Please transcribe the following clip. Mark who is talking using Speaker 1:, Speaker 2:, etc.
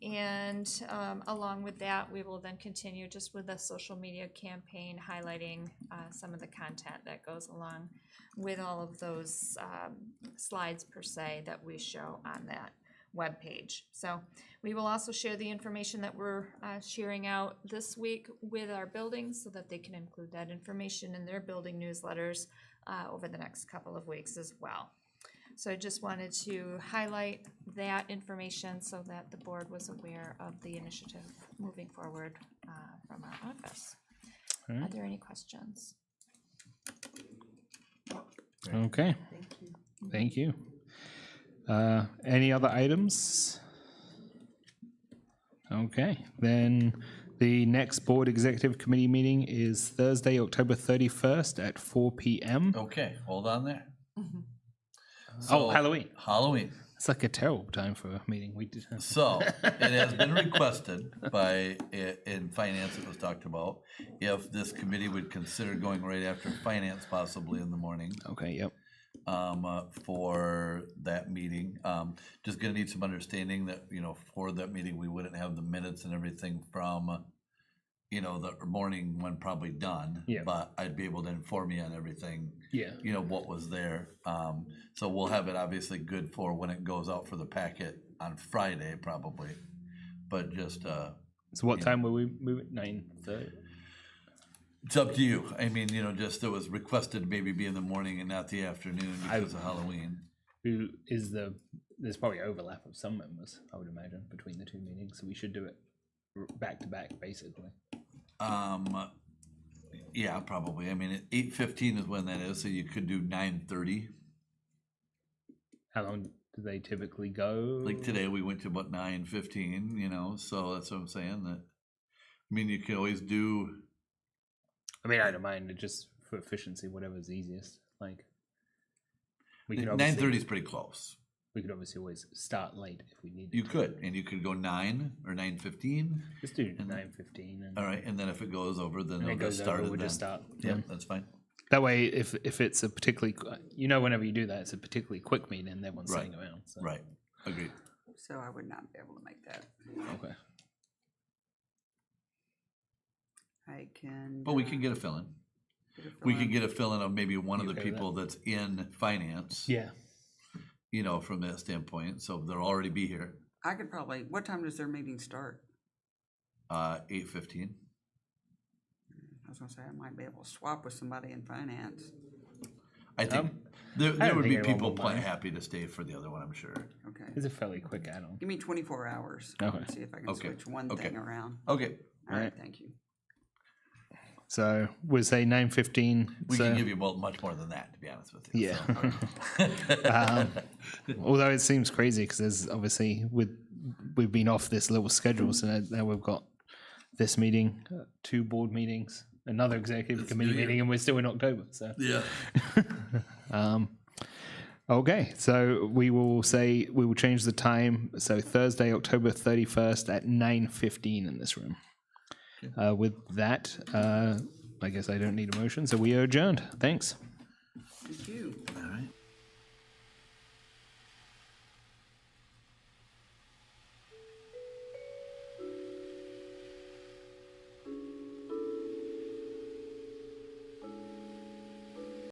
Speaker 1: And um, along with that, we will then continue just with a social media campaign highlighting uh, some of the content that goes along with all of those um, slides per se that we show on that webpage. So we will also share the information that we're uh, sharing out this week with our buildings so that they can include that information in their building newsletters uh, over the next couple of weeks as well. So I just wanted to highlight that information so that the board was aware of the initiative moving forward uh, from our office.
Speaker 2: All
Speaker 1: Are
Speaker 2: right.
Speaker 1: there any questions?
Speaker 2: Okay. Thank you. Uh, any other items? Okay, then the next board executive committee meeting is Thursday, October thirty-first at four PM.
Speaker 3: Okay, hold on there.
Speaker 2: Oh,
Speaker 3: Oh, So,
Speaker 2: Halloween.
Speaker 3: Halloween.
Speaker 2: It's like a terrible time for a meeting. We did.
Speaker 3: So it has been requested by, i- in finance, it was talked about, if this committee would consider going right after finance possibly in the morning
Speaker 2: Okay, yep.
Speaker 3: um, uh, for that meeting. Um, Just gonna need some understanding that, you know, for that meeting, we wouldn't have the minutes and everything from, you know, the morning one probably done.
Speaker 2: Yeah.
Speaker 3: But I'd be able to inform you on everything
Speaker 2: Yeah.
Speaker 3: you know, what was there. Um, so we'll have it obviously good for when it goes out for the packet on Friday probably. But just, uh,
Speaker 2: So what
Speaker 3: Yeah.
Speaker 2: time will we move it? Nine thirty?
Speaker 3: it's up to you. I mean, you know, just it was requested maybe be in the morning and not the afternoon because of Halloween.
Speaker 2: Who is the, there's probably overlap of some members, I would imagine, between the two meetings. So we should do it r- back to back, basically.
Speaker 3: Um, yeah, probably. I mean, eight fifteen is when that is, so you could do nine thirty.
Speaker 2: How long do they typically go?
Speaker 3: Like today, we went to about nine fifteen, you know, so that's what I'm saying that. I mean, you can always do,
Speaker 2: I mean, I don't mind. It just for efficiency, whatever's easiest. Like we could
Speaker 3: nine
Speaker 2: obviously
Speaker 3: thirty is pretty close.
Speaker 2: we could obviously always start late if we needed.
Speaker 3: You
Speaker 2: to.
Speaker 3: could, and you could go nine or nine fifteen.
Speaker 2: Let's do nine fifteen, and
Speaker 3: Mm-hmm. All right, and then if it goes over, then
Speaker 2: when
Speaker 3: they'll
Speaker 2: it
Speaker 3: get
Speaker 2: goes over.
Speaker 3: started.
Speaker 2: We'll
Speaker 3: then.
Speaker 2: just start.
Speaker 3: Yeah,
Speaker 2: Yeah.
Speaker 3: that's fine.
Speaker 2: That way, if if it's a particularly, qu- you know, whenever you do that, it's a particularly quick meeting, and everyone's
Speaker 3: Right.
Speaker 2: sitting around. So.
Speaker 3: Right, agreed.
Speaker 4: So I would not be able to make that.
Speaker 2: Okay.
Speaker 4: I can.
Speaker 3: But we
Speaker 4: uh,
Speaker 3: can get a fill-in.
Speaker 4: get a
Speaker 3: We
Speaker 4: fill-in.
Speaker 3: could get a fill-in of maybe one of
Speaker 2: You
Speaker 3: the
Speaker 2: okay with
Speaker 3: people that's in finance.
Speaker 2: Yeah.
Speaker 3: You know, from that standpoint, so they'll already be here,
Speaker 4: I could probably, what time does their meeting start?
Speaker 3: uh, eight fifteen.
Speaker 4: I was gonna say, I might be able to swap with somebody in finance.
Speaker 3: I think,
Speaker 2: Um,
Speaker 3: there, there
Speaker 2: don't
Speaker 3: would be
Speaker 2: think anyone
Speaker 3: people
Speaker 2: will
Speaker 3: pla-
Speaker 2: mind.
Speaker 3: happy to stay for the other one, I'm sure.
Speaker 4: Okay,
Speaker 2: It's a fairly quick add-on.
Speaker 4: give me twenty-four hours.
Speaker 2: Okay.
Speaker 4: See if I can
Speaker 3: Okay,
Speaker 4: switch one
Speaker 3: okay.
Speaker 4: thing around.
Speaker 3: Okay,
Speaker 4: All right,
Speaker 2: Alright.
Speaker 4: thank you.
Speaker 2: So we say nine fifteen.
Speaker 3: we
Speaker 2: so,
Speaker 3: can give you mo- much more than that, to be honest with you.
Speaker 2: yeah.
Speaker 3: so.
Speaker 2: Um, although it seems crazy because there's obviously with we've been off this little schedule, so now, now we've got this meeting, uh, two board meetings, another executive committee meeting, and we're still in October. So
Speaker 3: Yeah.
Speaker 2: okay, so we will say we will change the time. So Thursday, October thirty first at nine fifteen in this room. Uh, with that, uh, I guess I don't need a motion, so we are adjourned. Thanks.
Speaker 4: Thank you.